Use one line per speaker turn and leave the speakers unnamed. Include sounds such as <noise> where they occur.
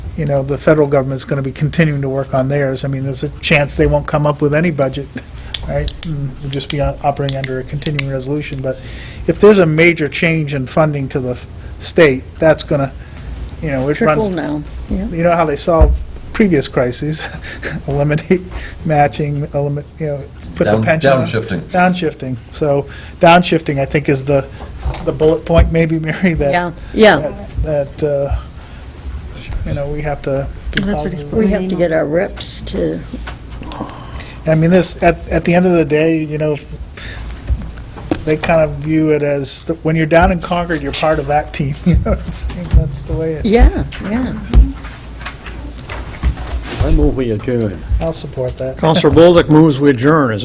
you know, the federal government's going to be continuing to work on theirs. I mean, there's a chance they won't come up with any budget, right? And We'll just be o- operating under a continuing resolution. But if there's a major change in funding to the f- state, that's going to, you know, it runs.
Trickle now, yeah.
You know how they solved previous crises? <laughs> Eliminate matching, eliminate, you know, put the
Down-
pension. on-
downshifting.
Downshifting. So downshifting, I think, is the, the bullet point maybe, Mary, that.
Yeah, yeah.
That, that, uh, you know, we have to. be
That's
following.
what
We have to get our reps to,
I mean, this, at, at the end of the day, you know, they kind of view it as, that when you're down in Concord, you're part of that team, <laughs> you know what I'm saying? That's the way it,
yeah, yeah.
I move we adjourn.
I'll support that.
Counselor Bolduc moves we adjourn. Is